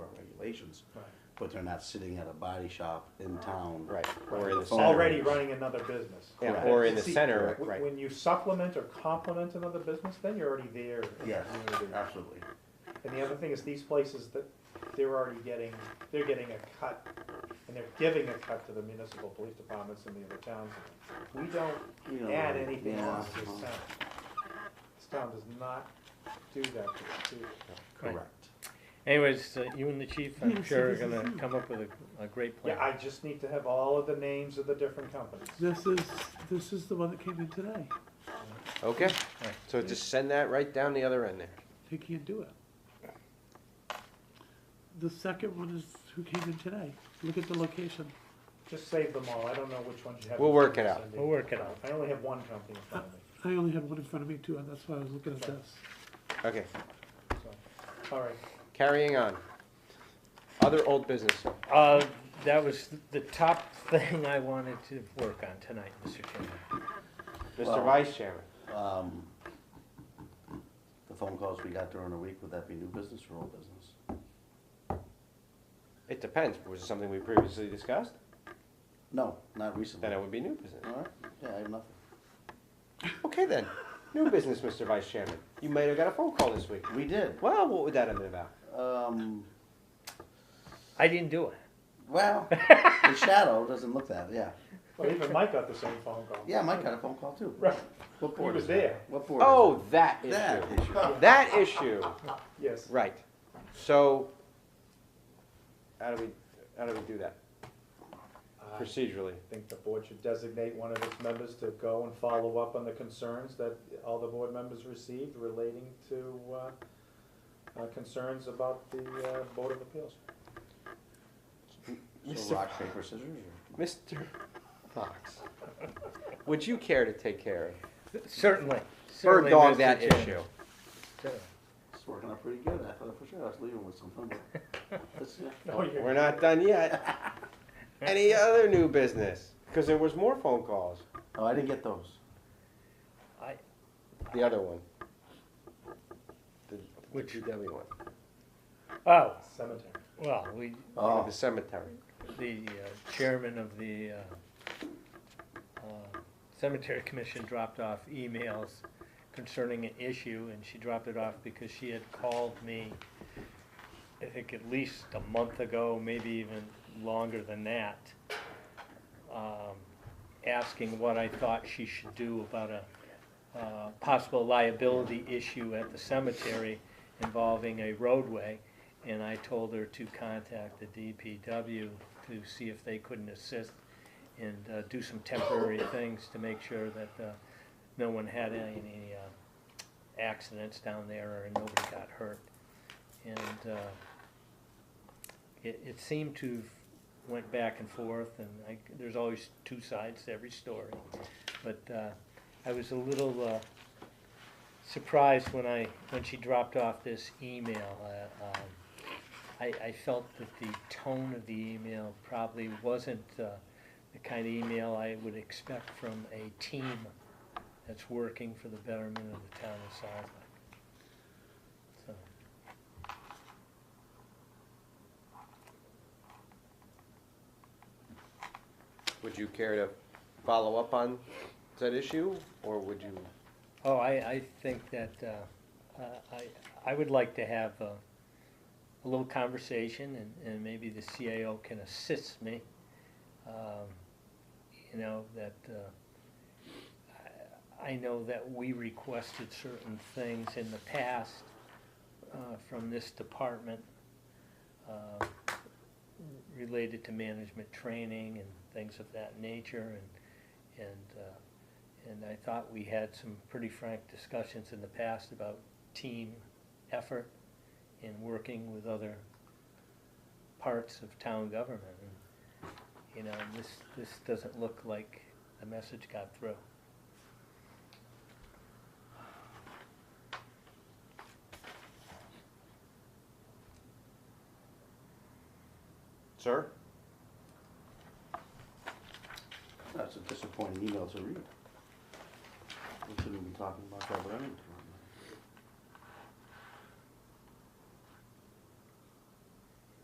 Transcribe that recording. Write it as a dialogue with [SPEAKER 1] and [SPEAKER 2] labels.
[SPEAKER 1] stations,
[SPEAKER 2] Right.
[SPEAKER 1] but they're not sitting at a body shop in town.
[SPEAKER 3] Right, or in the center.
[SPEAKER 2] Already running another business.
[SPEAKER 3] Yeah,
[SPEAKER 1] Correct.
[SPEAKER 3] or in the
[SPEAKER 2] See,
[SPEAKER 3] center,
[SPEAKER 2] wh-
[SPEAKER 3] right,
[SPEAKER 2] When you supplement or complement another business, then you're already there. in the
[SPEAKER 1] Yes,
[SPEAKER 2] community.
[SPEAKER 1] absolutely.
[SPEAKER 2] And the other thing is these places that they're already getting, they're getting a cut and they're giving a cut to the municipal police departments in the other towns. We don't
[SPEAKER 1] You know,
[SPEAKER 2] add anything
[SPEAKER 1] yeah,
[SPEAKER 2] else to this town. This town does not do that to us, do it.
[SPEAKER 1] Correct.
[SPEAKER 4] Anyways, uh, you and the chief, I'm sure, are gonna come up with a, a great plan.
[SPEAKER 2] Yeah, I just need to have all of the names of the different companies.
[SPEAKER 5] This is, this is the one that came in today.
[SPEAKER 3] okay, so just send that right down the other end there.
[SPEAKER 5] They can't do it. The second one is who came in today. Look at the location.
[SPEAKER 2] Just save them all, I don't know which ones you have.
[SPEAKER 3] We'll work it out.
[SPEAKER 2] Cindy.
[SPEAKER 4] We'll work it out.
[SPEAKER 2] I only have one company in front of me.
[SPEAKER 5] I only have one in front of me too, and that's why I was looking at this.
[SPEAKER 3] Okay,
[SPEAKER 2] So, all right,
[SPEAKER 3] carrying on. Other old business,
[SPEAKER 4] Uh, that was the top thing I wanted to work on tonight, Mr. Chairman.
[SPEAKER 3] Mr.
[SPEAKER 1] Well-
[SPEAKER 3] Vice Chairman,
[SPEAKER 1] Um, the phone calls we got during the week, would that be new business or old business?
[SPEAKER 3] it depends, was it something we previously discussed?
[SPEAKER 1] No, not recently.
[SPEAKER 3] Then it would be new business.
[SPEAKER 1] All right, yeah, I have nothing.
[SPEAKER 3] Okay then, new business, Mr. Vice Chairman, you might have got a phone call this week.
[SPEAKER 1] We did,
[SPEAKER 3] Well, what would that have been about?
[SPEAKER 1] um,
[SPEAKER 4] I didn't do it.
[SPEAKER 1] well, the shadow doesn't look that, yeah.
[SPEAKER 2] well, even Mike got the same phone call.
[SPEAKER 1] Yeah, Mike got a phone call too.
[SPEAKER 2] Right,
[SPEAKER 1] What
[SPEAKER 2] he
[SPEAKER 1] board
[SPEAKER 2] was
[SPEAKER 1] is that?
[SPEAKER 2] there,
[SPEAKER 1] What board? is
[SPEAKER 3] Oh, that
[SPEAKER 1] it? That
[SPEAKER 3] issue,
[SPEAKER 1] issue.
[SPEAKER 3] that issue,
[SPEAKER 2] yes.
[SPEAKER 3] right, so, how do we, how do we do that Uh,
[SPEAKER 2] I
[SPEAKER 3] procedurally?
[SPEAKER 2] think the board should designate one of its members to go and follow up on the concerns that all the board members received relating to, uh, uh, concerns about the, uh, Board of Appeals.
[SPEAKER 1] So rock, paper, scissors or?
[SPEAKER 3] Mr. Fox, would you care to take care of
[SPEAKER 4] Certainly,
[SPEAKER 3] bird
[SPEAKER 4] certainly,
[SPEAKER 3] dog
[SPEAKER 4] Mr.
[SPEAKER 3] that
[SPEAKER 4] Chairman.
[SPEAKER 3] issue?
[SPEAKER 4] Certainly.
[SPEAKER 1] It's working out pretty good. I thought for sure I was leaving with something, but it's, yeah.
[SPEAKER 2] No, you're-
[SPEAKER 3] We're not done yet. Any other new business? Because there was more phone calls.
[SPEAKER 1] Oh, I didn't get those.
[SPEAKER 4] I,
[SPEAKER 3] The other one. The
[SPEAKER 4] Which?
[SPEAKER 3] DPW one,
[SPEAKER 4] oh,
[SPEAKER 2] Cemetery.
[SPEAKER 4] well, we,
[SPEAKER 1] Oh,
[SPEAKER 3] the cemetery.
[SPEAKER 4] the uh, chairman of the, uh, uh, cemetery commission dropped off emails concerning an issue, and she dropped it off because she had called me, I think at least a month ago, maybe even longer than that, um, asking what I thought she should do about a, uh, possible liability issue at the cemetery involving a roadway, and I told her to contact the DPW to see if they couldn't assist and uh, do some temporary things to make sure that uh, no one had any uh, accidents down there or nobody got hurt. And uh, it, it seemed to went back and forth, and I, there's always two sides to every story. But uh, I was a little uh, surprised when I when she dropped off this email. Uh, um, I, I felt that the tone of the email probably wasn't uh, the kind of email I would expect from a team that's working for the betterment of the town of Southwick. So,
[SPEAKER 3] Would you care to follow up on that issue, or would you?
[SPEAKER 4] oh, I, I think that uh, uh, I I would like to have a, a little conversation, and, and maybe the CAO can assist me. Um, you know that. Uh, I know that we requested certain things in the past uh, from this department uh, related to management training and things of that nature, and, and, uh, and I thought we had some pretty frank discussions in the past about team effort in working with other parts of town government. And, You know, this, this doesn't look like the message got through.
[SPEAKER 3] Sir?
[SPEAKER 1] that's a disappointing email to read. We shouldn't be talking about that, but I didn't.